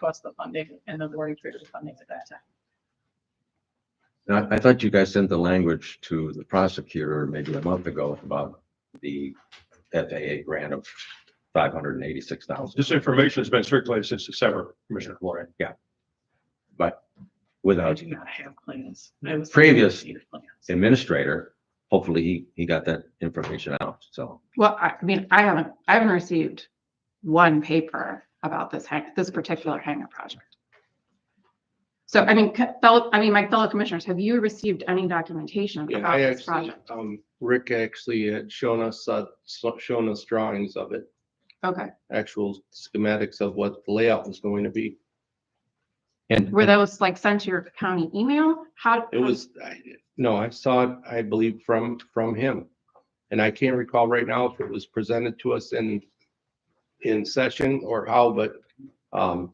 cost of funding and the board approved the funding at that time. And I, I thought you guys sent the language to the prosecutor maybe a month ago about the FAA grant of five hundred and eighty-six thousand This information's been circulated since December, Commissioner Warren. I without do not have plans. I was- Previous- Plans. administrator. Hopefully, he, he got that information out, so. Well, I I mean, I haven't, I haven't received one paper about this hang, this particular hangar project. So I mean, co- fellow, I mean, my fellow commissioners, have you received any documentation Yeah, about I this actually, project? um, Rick actually had shown us, uh, so- shown us drawings of it, Okay, actual schematics of what the layout was going to be. And, were those like sent to your county email? How? It was, I, no, I saw it, I believe, from, from him. And I can't recall right now if it was presented to us in, in session or how, but, um,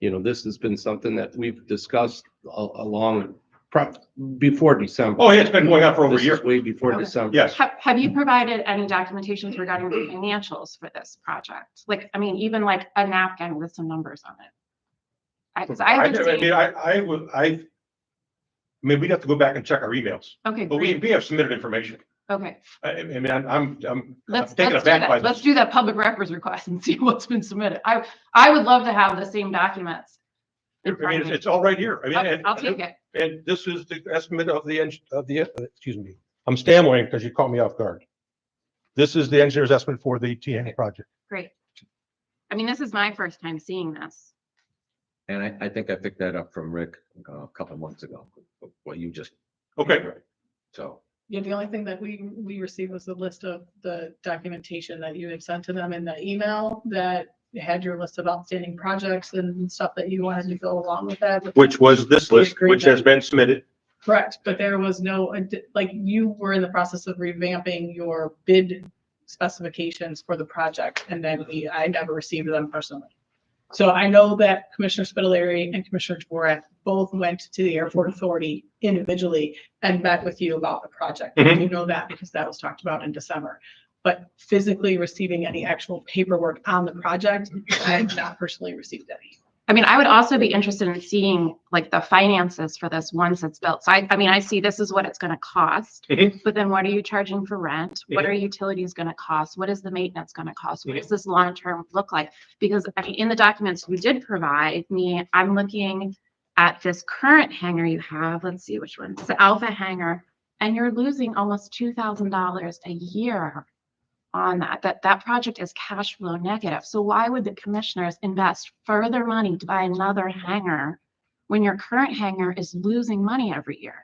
you know, this has been something that we've discussed a- along, pro- before December. Oh, yeah, it's been going on for over a This is year. Way before Okay. December. Yes. Have, have you provided any documentations regarding the financials for this project? Like, I mean, even like a napkin with some numbers on it? I, 'cause I I haven't I seen, mean, I, I would, I, I mean, we'd have to go back and check our emails, okay, but we, great, we have submitted information. okay. I, I mean, I'm, I'm, I'm I'm Let's, taken let's do aback by that. Let's this. do that public records request and see what's been submitted. I, I would love to have the same documents. I in front mean, of it's, me. it's all right here. I mean, I'll and- I'll take it. And this is the estimate of the, eng- of the, uh, excuse me, I'm stammering because you caught me off guard. This is the engineer's estimate for the TN project. Great. I mean, this is my first time seeing this. and I, I think I picked that up from Rick uh, a couple months ago, what you just. Okay, So, Yeah, the only thing that we, we received was the list of the documentation that you had sent to them in the email that had your list of outstanding projects and stuff that you wanted to go along with that. which was this We list, agreed which that- has been submitted. Correct, but there was no, ad- like, you were in the process of revamping your bid specifications for the project, and then we, I never received them personally. So I know that Commissioner Spitaleri and Commissioner Dvorak both went to the airport authority individually and met with you about the project. Mhm. You know that because that was talked about in December. But physically receiving any actual paperwork on the project, I have not personally received any. I mean, I would also be interested in seeing like the finances for this once it's built. So I, I mean, I see this is what it's gonna cost. Mhm. But then what are you charging for rent? What are utilities gonna cost? What is the maintenance gonna cost? What does this long-term look like? Because I mean, in the documents you did provide me, I'm looking at this current hangar you have. Let's see which one. It's the Alpha hangar. And you're losing almost two thousand dollars a year on that, that that project is cash flow negative. So why would the commissioners invest further money to buy another hangar when your current hangar is losing money every year?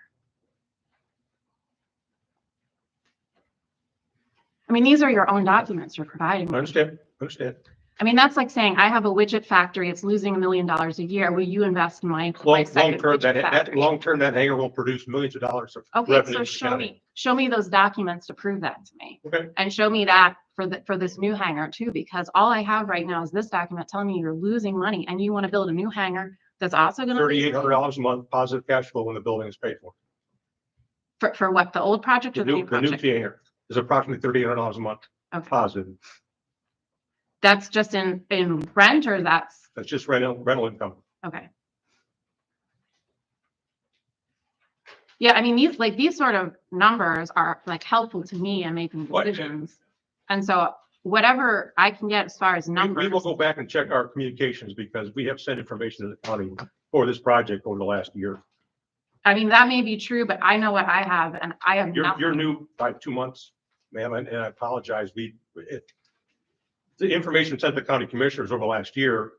I mean, these are your own documents you're providing. I understand, I understand. I mean, that's like saying, I have a widget factory, it's losing a million dollars a year. Will you invest in my? my Long, second long term, widget that, that, factory?" long term, that hangar will produce millions of dollars of revenue. Okay, to so the show county. me, show me those documents to prove that to me. Okay. And show me that for the, for this new hangar too, because all I have right now is this document telling me you're losing money and you want to build a new hangar that's also gonna. lose Thirty-eight hundred dollars a month positive cash flow when the building is paid for. For, for what, the old project The or the new, new the new project? hangar is approximately thirty-eight hundred dollars a month Okay, positive. that's just in, in rent or that's, That's just rental, rental income. okay. Yeah, I mean, these, like, these sort of numbers are like helpful to me in making What- decisions. And so whatever I can get as far as We- numbers. We will go back and check our communications because we have sent information to the county for this project over the last year. I mean, that may be true, but I know what I have and I have You're, you're nothing. new by two months, ma'am, and and I apologize. We, it, the information sent to the county commissioners over the last year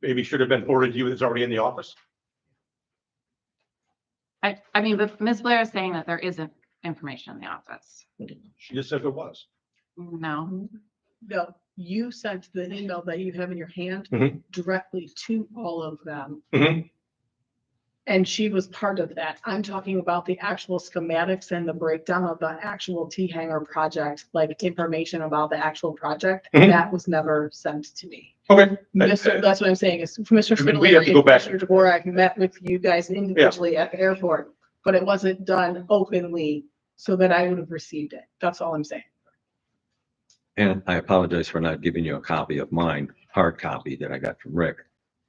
maybe should have been forwarded to you. It's already in the office. I, I mean, but Ms. Blair is saying that there isn't information in the office. She just says it was. No, No, you sent the email that you have in your hand Mhm. directly to all of them. Mhm. And she was part of that. I'm talking about the actual schematics and the breakdown of the actual T hanger project, like information about the actual project. Mhm. That was never sent to me. Okay. Mr. That's what I'm saying is Mr. uh, I mean, we have Spitaleri to and go back. Commissioner Dvorak met with you guys individually at the airport, but it wasn't done openly so that I would have received it. That's all I'm saying. and I apologize for not giving you a copy of mine, hard copy that I got from Rick.